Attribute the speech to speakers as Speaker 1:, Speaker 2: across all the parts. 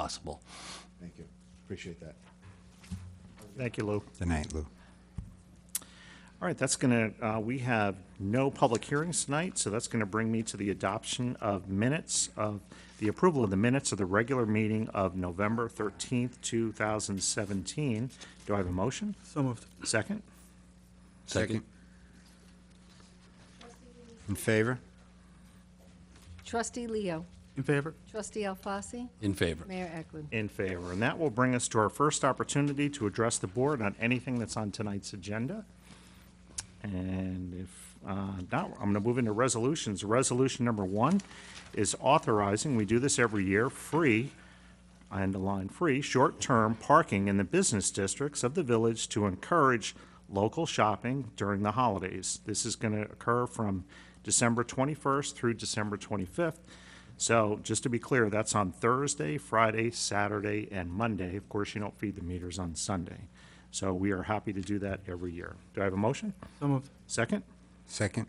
Speaker 1: possible.
Speaker 2: Thank you. Appreciate that.
Speaker 3: Thank you, Lou.
Speaker 4: Good night, Lou.
Speaker 3: All right, that's going to, we have no public hearings tonight, so that's going to bring me to the adoption of minutes of, the approval of the minutes of the regular meeting of November 13th, 2017. Do I have a motion?
Speaker 5: So moved.
Speaker 3: Second?
Speaker 1: Second?
Speaker 4: In favor?
Speaker 6: Trustee Leo.
Speaker 5: In favor?
Speaker 6: Trustee Alfasi.
Speaker 1: In favor.
Speaker 6: Mayor Eklund.
Speaker 3: In favor. And that will bring us to our first opportunity to address the board on anything that's on tonight's agenda. And if uh, not, I'm going to move into resolutions. Resolution number one is authorizing, we do this every year, free, I underline free, short-term parking in the business districts of the village to encourage local shopping during the holidays. This is going to occur from December 21st through December 25th. So just to be clear, that's on Thursday, Friday, Saturday, and Monday. Of course, you don't feed the meters on Sunday. So we are happy to do that every year. Do I have a motion?
Speaker 5: So moved.
Speaker 3: Second?
Speaker 4: Second?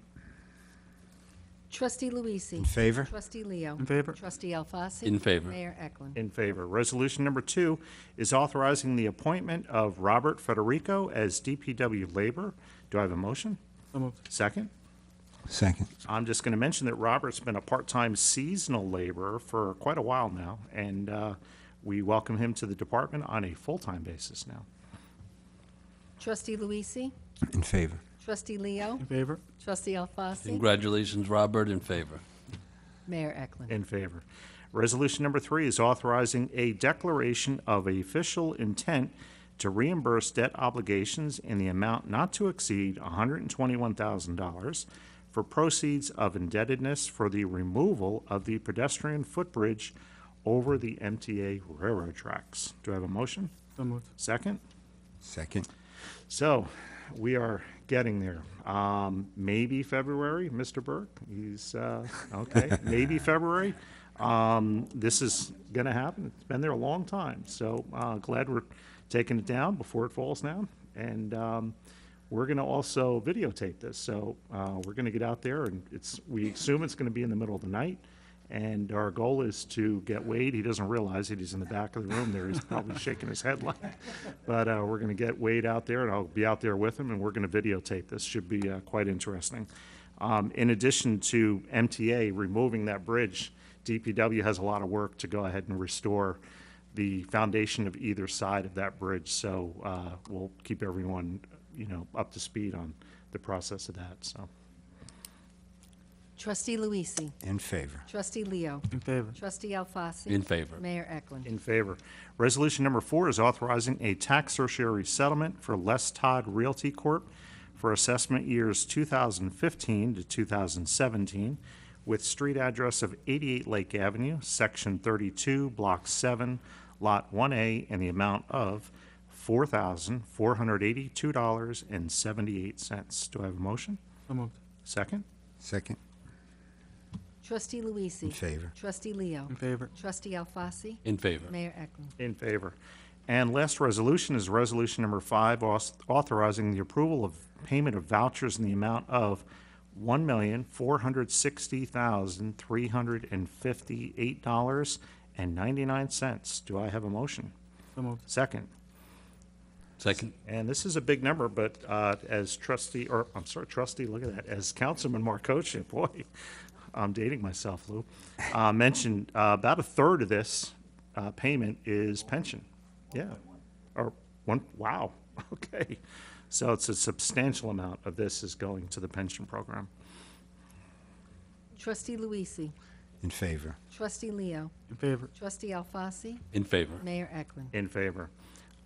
Speaker 6: Trustee Luisee.
Speaker 4: In favor?
Speaker 6: Trustee Leo.
Speaker 5: In favor?
Speaker 6: Trustee Alfasi.
Speaker 1: In favor.
Speaker 6: Mayor Eklund.
Speaker 3: In favor. Resolution number two is authorizing the appointment of Robert Federico as DPW labor. Do I have a motion?
Speaker 5: So moved.
Speaker 3: Second?
Speaker 4: Second.
Speaker 3: I'm just going to mention that Robert's been a part-time seasonal laborer for quite a while now, and uh, we welcome him to the department on a full-time basis now.
Speaker 6: Trustee Luisee.
Speaker 4: In favor?
Speaker 6: Trustee Leo.
Speaker 5: In favor?
Speaker 6: Trustee Alfasi.
Speaker 1: Congratulations, Robert, in favor.
Speaker 6: Mayor Eklund.
Speaker 3: In favor. Resolution number three is authorizing a declaration of official intent to reimburse debt obligations in the amount not to exceed $121,000 for proceeds of indebtedness for the removal of the pedestrian footbridge over the MTA railroad tracks. Do I have a motion?
Speaker 5: So moved.
Speaker 3: Second?
Speaker 4: Second?
Speaker 3: So, we are getting there. Um, maybe February, Mr. Burke. He's uh, okay. maybe February. Um, this is going to happen. It's been there a long time. So uh, glad we're taking it down before it falls down. And um, we're going to also videotape this. So uh, we're going to get out there, and it's we assume it's going to be in the middle of the night. And our goal is to get Wade. He doesn't realize it. He's in the back of the room there. He's probably shaking his head like. But uh, we're going to get Wade out there, and I'll be out there with him, and we're going to videotape this. Should be uh, quite interesting. Um, in addition to MTA removing that bridge, DPW has a lot of work to go ahead and restore the foundation of either side of that bridge. So uh, we'll keep everyone, you know, up to speed on the process of that. So
Speaker 6: Trustee Luisee.
Speaker 4: In favor?
Speaker 6: Trustee Leo.
Speaker 5: In favor?
Speaker 6: Trustee Alfasi.
Speaker 1: In favor.
Speaker 6: Mayor Eklund.
Speaker 3: in favor. Resolution number four is authorizing a tax certiorari settlement for Les Todd Realty Corp. for assessment years 2015 to 2017 with street address of 88 Lake Avenue, Section 32, Block 7, Lot 1A, in the amount of $4,482.78. Do I have a motion?
Speaker 5: So moved.
Speaker 3: Second?
Speaker 4: Second?
Speaker 6: Trustee Luisee.
Speaker 4: In favor?
Speaker 6: Trustee Leo.
Speaker 5: In favor?
Speaker 6: Trustee Alfasi.
Speaker 1: In favor.
Speaker 6: Mayor Eklund.
Speaker 3: In favor. And last resolution is resolution number five, aus- authorizing the approval of payment of vouchers in the amount of one million, four hundred sixty thousand, three hundred and fifty-eight dollars and ninety-nine cents. Do I have a motion?
Speaker 5: So moved.
Speaker 3: Second.
Speaker 1: Second?
Speaker 3: And this is a big number, but uh, as trustee, or I'm sorry, trustee, look at that, as Councilman Markocha, boy, I'm dating myself, Lou, uh, mentioned uh, about a third of this uh, payment is pension. Yeah. Or one, wow, okay. So it's a substantial amount of this is going to the pension program.
Speaker 6: Trustee Luisee.
Speaker 4: In favor?
Speaker 6: Trustee Leo.
Speaker 5: In favor?
Speaker 6: Trustee Alfasi.
Speaker 1: In favor.
Speaker 6: Mayor Eklund.
Speaker 3: In favor.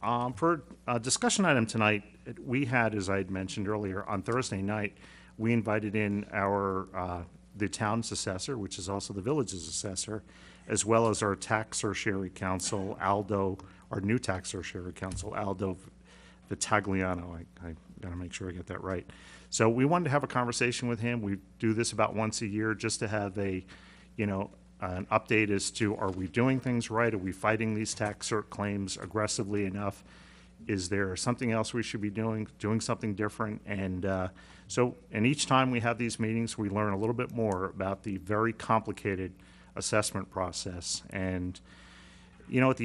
Speaker 3: Um, For a discussion item tonight, it- we had, as I had mentioned earlier, on Thursday night, we invited in our, uh, the town's assessor, which is also the village's assessor, as well as our tax certiorari council, Aldo, our new tax certiorari council, Aldo Vitagliano. I, I gotta make sure I get that right. So we wanted to have a conversation with him. We do this about once a year just to have a, you know, an update as to are we doing things right? Are we fighting these tax cert claims aggressively enough? Is there something else we should be doing, doing something different? And uh, so, and each time we have these meetings, we learn a little bit more about the very complicated assessment process. And you know, at the